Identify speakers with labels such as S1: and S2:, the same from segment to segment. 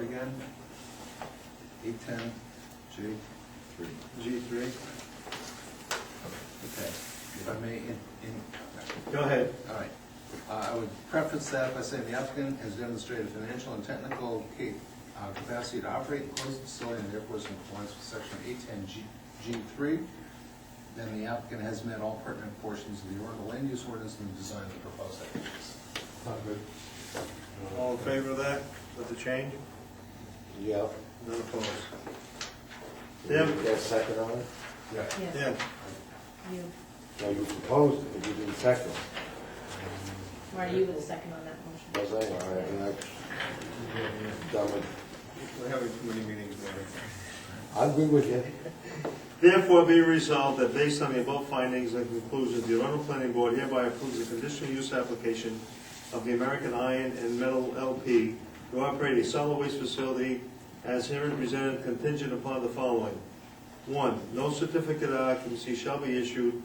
S1: again? Eight ten, G? Three. G three? Okay, if I may, in, in,
S2: Go ahead.
S1: all right. Uh, I would preface that by saying the applicant has demonstrated financial and technical ca- uh, capacity to operate and close the facility and therefore is in compliance with section eight ten G, G three. Then the applicant has met all pertinent portions of the Oregon land use ordinance and the design of the proposed activities.
S2: All in favor of that, with the change?
S3: Yeah.
S2: None opposed? Tim?
S3: That second on it?
S1: Yeah.
S4: Yes,
S2: Tim?
S4: you,
S3: No, you proposed it, but you didn't second it.
S4: Marty, you were the second on that motion.
S3: Was I, all right, and I'm done with,
S2: We're having too many meetings there.
S3: I agree with you.
S2: Therefore be resolved that based on the above findings and conclusions, the Arundel Planning Board hereby approves the conditional use application of the American Iron and Metal LP to operate a solid waste facility as herein presented contingent upon the following. One, no certificate of occupancy shall be issued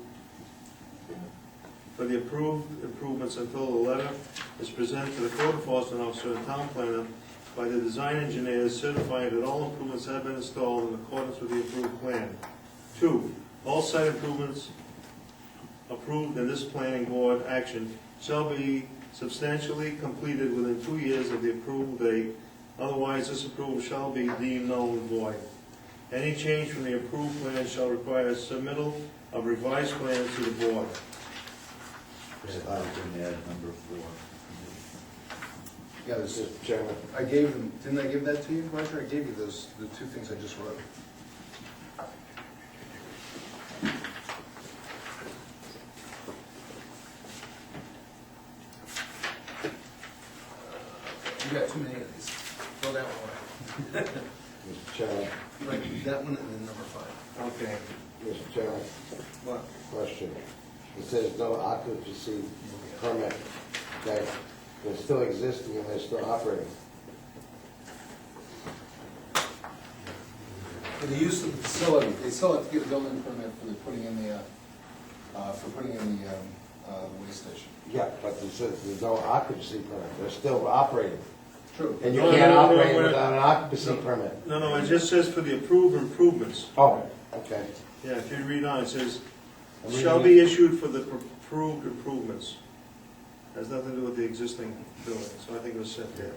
S2: for the approved improvements until the letter is presented to the code enforcement officer and town planner by the design engineers certifying that all improvements have been installed in accordance with the approved plan. Two, all site improvements approved in this planning board action shall be substantially completed within two years of the approval date, otherwise this approval shall be deemed null and void. Any change from the approved plan shall require submittal of revised plans to the board.
S1: I was gonna add number four. Yeah, this is,
S3: Mr. Chairman,
S1: I gave them, didn't I give that to you, Roger? I gave you those, the two things I just wrote. You got too many of these. Throw that one
S3: Mr. Chairman,
S1: away. Right, that one and then number five.
S2: Okay.
S3: Mr. Chairman,
S1: What?
S3: question. It says no occupancy permit, that they're still existing and they're still operating.
S1: For the use of the facility, they still have to get a building permit for the putting in the, uh, uh, for putting in the, um, uh, waste station.
S3: Yeah, but it says there's no occupancy permit, they're still operating.
S1: True.
S3: And you
S2: No, no,
S3: can't
S2: no, no,
S3: operate
S2: we're-
S3: without an occupancy permit.
S2: No, no, it just says for the approved improvements.
S3: Oh, okay.
S2: Yeah, if you read on, it says,
S3: I'm reading
S2: shall
S3: it.
S2: be issued for the pr- approved improvements. Has nothing to do with the existing building, so I think it was set there.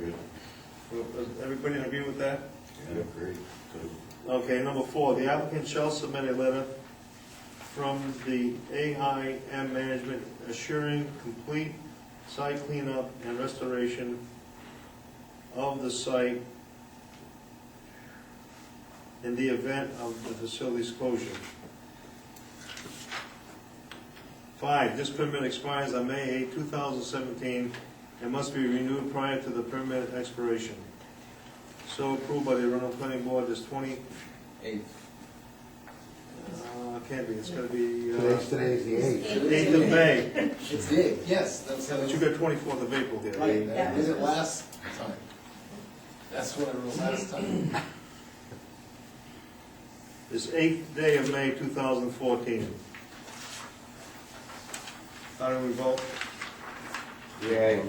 S2: Well, does Everybody agree with that?
S3: I agree.
S2: Okay, number four, the applicant shall submit a letter from the AIM management assuring complete site cleanup and restoration of the site in the event of the facility's closure. Five, this permit expires on May 8, 2017, and must be renewed prior to the permit expiration. So approved by the Arundel Planning Board, this 20,
S1: Eight.
S2: uh, can't be, it's gonna be,
S3: Today's,
S2: uh,
S3: today's the eighth.
S2: eighth of May,
S5: It's big, yes, that's how
S2: but you
S5: it,
S2: got twenty-fourth of April here.
S5: right, that did it last time. That's what I wrote last time.
S2: This eighth day of May, two thousand fourteen. How do we vote?
S3: Yay.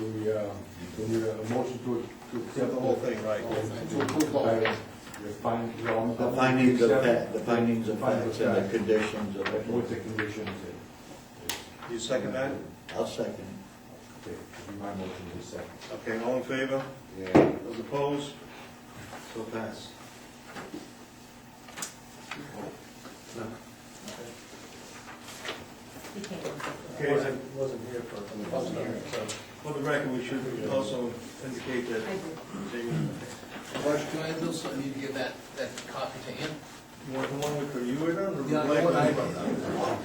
S6: We, uh, we need a motion to, to accept
S2: The whole thing, right?
S5: To approve all of it.
S6: The fin- the on-
S7: The findings of fact, the findings
S6: The
S7: of facts and the
S6: fact
S7: conditions of
S6: With the
S7: it.
S6: conditions.
S2: You second that?
S7: I'll second.
S6: Okay, my motion is second.
S2: Okay, all in favor?
S3: Yeah.
S2: Those opposed? So pass. No.
S4: He can't.
S2: Okay, then,
S1: wasn't here for.
S5: Wasn't here.
S2: for the record, we should also indicate that
S4: I agree.
S2: Jamie,
S5: Roger, can I have those, I need to give that, that copy to him?
S2: you want the one with the, you were done? or
S5: Yeah, I
S2: Mike?
S5: know what I wrote.